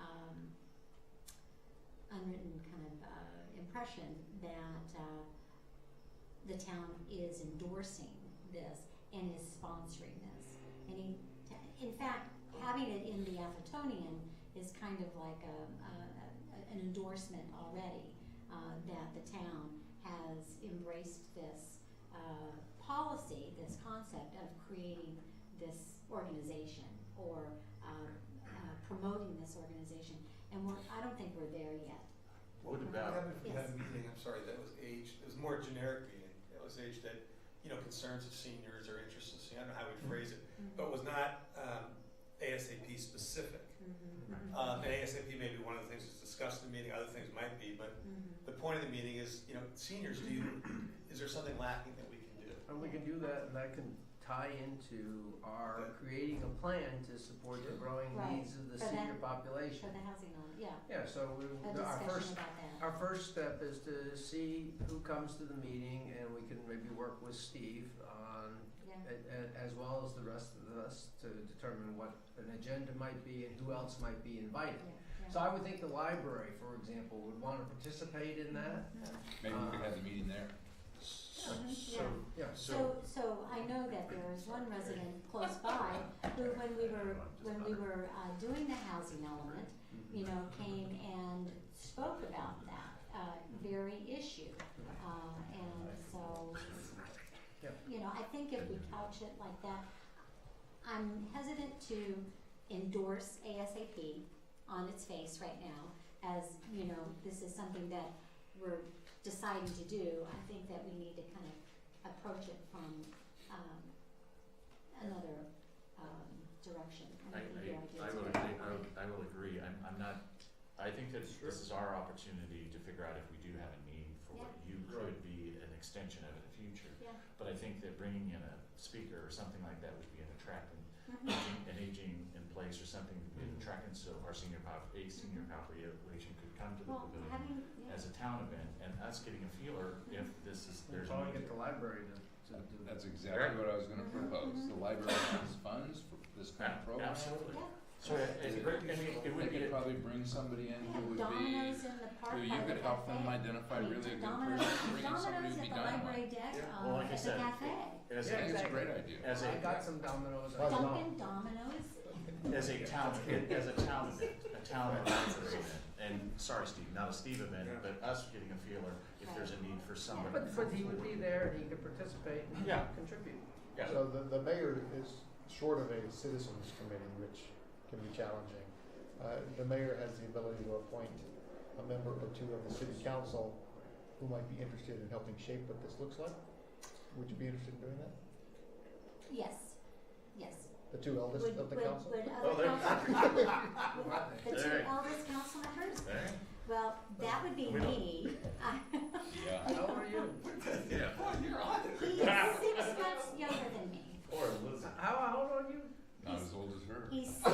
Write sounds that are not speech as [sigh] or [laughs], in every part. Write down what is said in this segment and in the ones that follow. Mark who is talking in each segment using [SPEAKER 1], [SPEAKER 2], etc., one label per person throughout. [SPEAKER 1] um, unwritten kind of uh, impression that uh, the town is endorsing this and is sponsoring this. And he, in fact, having it in the Athertonian is kind of like a, a, a, an endorsement already uh, that the town has embraced this uh, policy, this concept of creating this organization or uh, uh, promoting this organization. And we're, I don't think we're there yet.
[SPEAKER 2] What
[SPEAKER 3] What
[SPEAKER 2] about,
[SPEAKER 3] happened if we had
[SPEAKER 1] Yes.
[SPEAKER 3] a meeting, I'm sorry, that was aged, it was more generic meeting, it was aged at, you know, concerns of seniors or interests of seniors, I don't know how we'd phrase it, but was not um, ASAP specific.
[SPEAKER 1] Mm-hmm.
[SPEAKER 3] Um, And ASAP may be one of the things that's discussed in the meeting, other things might be, but
[SPEAKER 1] Mm-hmm.
[SPEAKER 3] the point of the meeting is, you know, seniors, do you, is there something lacking that we can do?
[SPEAKER 4] And we can do that, and that can tie into our creating a plan to support the
[SPEAKER 3] Sure.
[SPEAKER 4] growing
[SPEAKER 1] Right.
[SPEAKER 4] needs of the
[SPEAKER 1] For that-
[SPEAKER 4] senior population.
[SPEAKER 1] Mm-hmm. For the housing on, yeah,
[SPEAKER 4] Yeah, so we,
[SPEAKER 1] a
[SPEAKER 4] our
[SPEAKER 1] discussion
[SPEAKER 4] first,
[SPEAKER 1] about that.
[SPEAKER 4] our first step is to see who comes to the meeting, and we can maybe work with Steve on,
[SPEAKER 1] Yeah.
[SPEAKER 4] a- a- as well as the rest of us, to determine what an agenda might be and who else might be invited.
[SPEAKER 1] Yeah, yeah.
[SPEAKER 4] So I would think the library, for example, would want to participate in that.
[SPEAKER 2] maybe we could have the meeting there?
[SPEAKER 1] Mhm,
[SPEAKER 3] So,
[SPEAKER 1] yeah.
[SPEAKER 4] Yeah,
[SPEAKER 3] so,
[SPEAKER 1] So, so I know that there was one resident close by who, when we were, when we were uh, doing the housing element, you know, came and spoke about that uh, very issue. Uh, and so,
[SPEAKER 4] Yep.
[SPEAKER 1] you know, I think if we couch it like that, I'm hesitant to endorse ASAP on its face right now, as you know, this is something that we're deciding to do. I think that we need to kind of approach it from um, another um, direction.
[SPEAKER 5] I,
[SPEAKER 1] think the idea
[SPEAKER 5] I, I
[SPEAKER 1] is
[SPEAKER 5] will
[SPEAKER 1] to-
[SPEAKER 5] agree, I will, I will agree, I'm, I'm not, I think that this is our opportunity to figure out if we do have a need for what you could be an extension of in the future.
[SPEAKER 1] Yeah.
[SPEAKER 5] But I think that bringing in a speaker or something like that would be an attractant,
[SPEAKER 1] Mhm.
[SPEAKER 5] aging- an aging in place or something would
[SPEAKER 1] Mm-hmm.
[SPEAKER 5] be an attractant, so our senior pop, a senior population could come to the
[SPEAKER 1] Well,
[SPEAKER 5] pavilion
[SPEAKER 1] having, yeah. Mm-hmm.
[SPEAKER 5] as a town event, and us getting a feeler if this is,
[SPEAKER 4] we
[SPEAKER 5] there's a
[SPEAKER 4] probably
[SPEAKER 5] need.
[SPEAKER 4] get the library to, to do that.
[SPEAKER 2] That's exactly what I was gonna
[SPEAKER 1] Mhm,
[SPEAKER 2] propose, the
[SPEAKER 1] mhm.
[SPEAKER 2] library has funds for this kind of
[SPEAKER 5] Yeah,
[SPEAKER 2] program.
[SPEAKER 5] Absolutely,
[SPEAKER 1] Yeah.
[SPEAKER 5] so uh, it- it's a great, I mean, it would be,
[SPEAKER 2] They could
[SPEAKER 5] a-
[SPEAKER 2] probably bring somebody in
[SPEAKER 1] We have
[SPEAKER 2] who would be,
[SPEAKER 1] dominoes in the park.
[SPEAKER 2] who you
[SPEAKER 1] by the
[SPEAKER 2] could help them
[SPEAKER 1] cafe.
[SPEAKER 2] identify
[SPEAKER 1] I mean,
[SPEAKER 2] really a good
[SPEAKER 1] dominoes-
[SPEAKER 2] person, bring in
[SPEAKER 1] Dominoes
[SPEAKER 2] somebody
[SPEAKER 1] at
[SPEAKER 2] who'd be
[SPEAKER 1] the
[SPEAKER 2] dynamite.
[SPEAKER 1] library deck,
[SPEAKER 3] Yeah.
[SPEAKER 1] uh,
[SPEAKER 5] Well, like
[SPEAKER 1] at the
[SPEAKER 5] I said,
[SPEAKER 1] cafe.
[SPEAKER 5] as
[SPEAKER 2] I think
[SPEAKER 5] a,
[SPEAKER 2] it's a great idea.
[SPEAKER 5] as a.
[SPEAKER 4] I got some dominoes. I don't-
[SPEAKER 1] Dunkin' Dominoes.
[SPEAKER 5] as a town, as a town event, a town event, and, sorry, Steve, not a Steve event,
[SPEAKER 3] Yeah.
[SPEAKER 5] but us getting a feeler if there's a need for somebody.
[SPEAKER 4] But, but he would be there and he could participate and
[SPEAKER 5] Yeah.
[SPEAKER 4] contribute.
[SPEAKER 5] Yeah.
[SPEAKER 6] So the, the mayor is short of a citizens committee, which can be challenging. Uh, the mayor has the ability to appoint a member or two of the city council who might be interested in helping shape what this looks like. Would you be interested in doing that?
[SPEAKER 1] Yes, yes.
[SPEAKER 6] The two eldest
[SPEAKER 1] Would-
[SPEAKER 6] of the
[SPEAKER 1] would-
[SPEAKER 6] council?
[SPEAKER 1] would
[SPEAKER 5] Oh,
[SPEAKER 1] other
[SPEAKER 5] there-
[SPEAKER 1] council- The two
[SPEAKER 5] There.
[SPEAKER 1] eldest council members?
[SPEAKER 5] Right?
[SPEAKER 1] Well, that would be
[SPEAKER 5] We don't-
[SPEAKER 1] me. [laughs]
[SPEAKER 2] Yeah.
[SPEAKER 4] How old are you?
[SPEAKER 5] Yeah.
[SPEAKER 3] boy, you're on it.
[SPEAKER 1] He's six months younger than me.
[SPEAKER 5] Or Elizabeth.
[SPEAKER 4] [laughs] How, how old are you?
[SPEAKER 2] Not as old as
[SPEAKER 1] [laughs]
[SPEAKER 2] her.
[SPEAKER 1] He's six,
[SPEAKER 4] What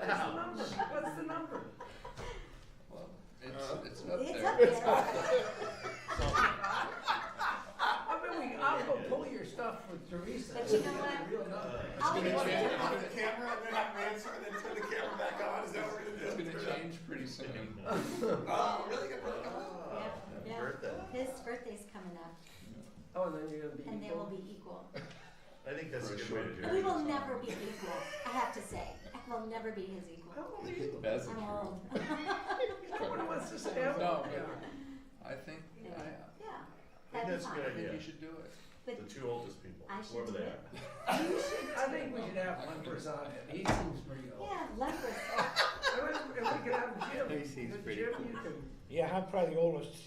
[SPEAKER 4] is the number? What's the number?
[SPEAKER 2] Well, it's, it's up
[SPEAKER 1] it's
[SPEAKER 2] there.
[SPEAKER 1] up there.
[SPEAKER 4] I mean, we, I'll go pull your stuff with Teresa.
[SPEAKER 1] But you know what?
[SPEAKER 4] Real number.
[SPEAKER 1] I'll
[SPEAKER 3] Turn
[SPEAKER 1] be-
[SPEAKER 3] the camera, then I'm answering, then turn the camera back on, is that what we're
[SPEAKER 2] It's
[SPEAKER 3] gonna do?
[SPEAKER 2] gonna change pretty soon.
[SPEAKER 3] [laughs]
[SPEAKER 5] [laughs]
[SPEAKER 3] Oh, really good work.
[SPEAKER 1] Yeah, yeah.
[SPEAKER 5] Birthday.
[SPEAKER 1] His birthday's coming up
[SPEAKER 4] Oh, and then you're gonna be
[SPEAKER 1] and they will
[SPEAKER 4] equal?
[SPEAKER 1] be equal.
[SPEAKER 5] I think that's a
[SPEAKER 2] For
[SPEAKER 5] good way to
[SPEAKER 2] a short
[SPEAKER 5] do it.
[SPEAKER 2] period.
[SPEAKER 1] We will never be equal, I have to say. I will never be his
[SPEAKER 4] How
[SPEAKER 1] equal.
[SPEAKER 4] old are you?
[SPEAKER 2] That's the
[SPEAKER 1] I'm
[SPEAKER 2] truth.
[SPEAKER 1] old. [laughs]
[SPEAKER 4] Nobody wants to say how
[SPEAKER 2] No,
[SPEAKER 4] old you are.
[SPEAKER 2] I think,
[SPEAKER 1] Yeah.
[SPEAKER 2] I,
[SPEAKER 1] Yeah, that'd
[SPEAKER 5] I think
[SPEAKER 1] be
[SPEAKER 5] that's a
[SPEAKER 1] fine.
[SPEAKER 5] good
[SPEAKER 2] I think
[SPEAKER 5] idea,
[SPEAKER 2] you should do it.
[SPEAKER 1] But
[SPEAKER 5] the two oldest people,
[SPEAKER 1] I should
[SPEAKER 5] whoever
[SPEAKER 1] do
[SPEAKER 5] they
[SPEAKER 1] it.
[SPEAKER 5] are.
[SPEAKER 4] I think we should have one person on it. He seems pretty old.
[SPEAKER 1] yeah, leprosy.
[SPEAKER 4] I mean, if we could have Jim,
[SPEAKER 2] He seems
[SPEAKER 4] if
[SPEAKER 2] pretty
[SPEAKER 4] Jim,
[SPEAKER 2] cool.
[SPEAKER 4] you can.
[SPEAKER 7] Yeah, I'm probably the oldest. [laughs]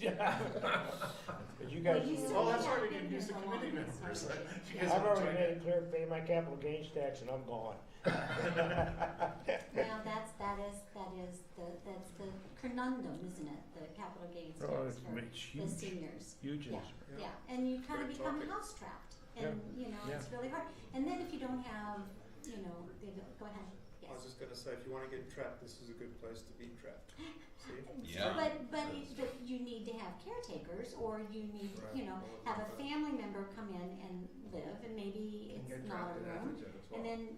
[SPEAKER 7] But you guys,
[SPEAKER 1] You
[SPEAKER 7] were-
[SPEAKER 1] still
[SPEAKER 5] Oh, that's
[SPEAKER 1] have
[SPEAKER 5] right, we
[SPEAKER 1] been
[SPEAKER 5] can
[SPEAKER 1] here
[SPEAKER 5] use the
[SPEAKER 1] for
[SPEAKER 5] committee
[SPEAKER 1] long,
[SPEAKER 5] members.
[SPEAKER 1] so-
[SPEAKER 5] [laughs] You guys
[SPEAKER 7] I've
[SPEAKER 5] have
[SPEAKER 7] already
[SPEAKER 5] joined
[SPEAKER 7] made
[SPEAKER 5] it.
[SPEAKER 7] it clear, pay my capital gains tax and I'm gone.
[SPEAKER 1] Well, that's, that is, that is the, that's the conundrum, isn't it, the capital gains
[SPEAKER 7] Oh,
[SPEAKER 1] tax for the seniors.
[SPEAKER 7] huge.
[SPEAKER 1] Yeah, yeah, and you kind of
[SPEAKER 3] Great
[SPEAKER 1] become
[SPEAKER 3] topic.
[SPEAKER 1] house trapped, and, you know,
[SPEAKER 7] yeah.
[SPEAKER 1] it's really hard. And then if you don't have, you know, they go, go ahead,
[SPEAKER 3] I was
[SPEAKER 1] yes.
[SPEAKER 3] just gonna say, if you wanna get trapped, this is a good place to be trapped. See?
[SPEAKER 2] Yeah.
[SPEAKER 1] But, but, it- but you need to have caretakers, or you need, you know, have a family member come in and live, and maybe
[SPEAKER 4] You
[SPEAKER 1] it's
[SPEAKER 4] can get
[SPEAKER 1] not a
[SPEAKER 4] trapped in
[SPEAKER 1] room.
[SPEAKER 4] Atherton as well.
[SPEAKER 1] And then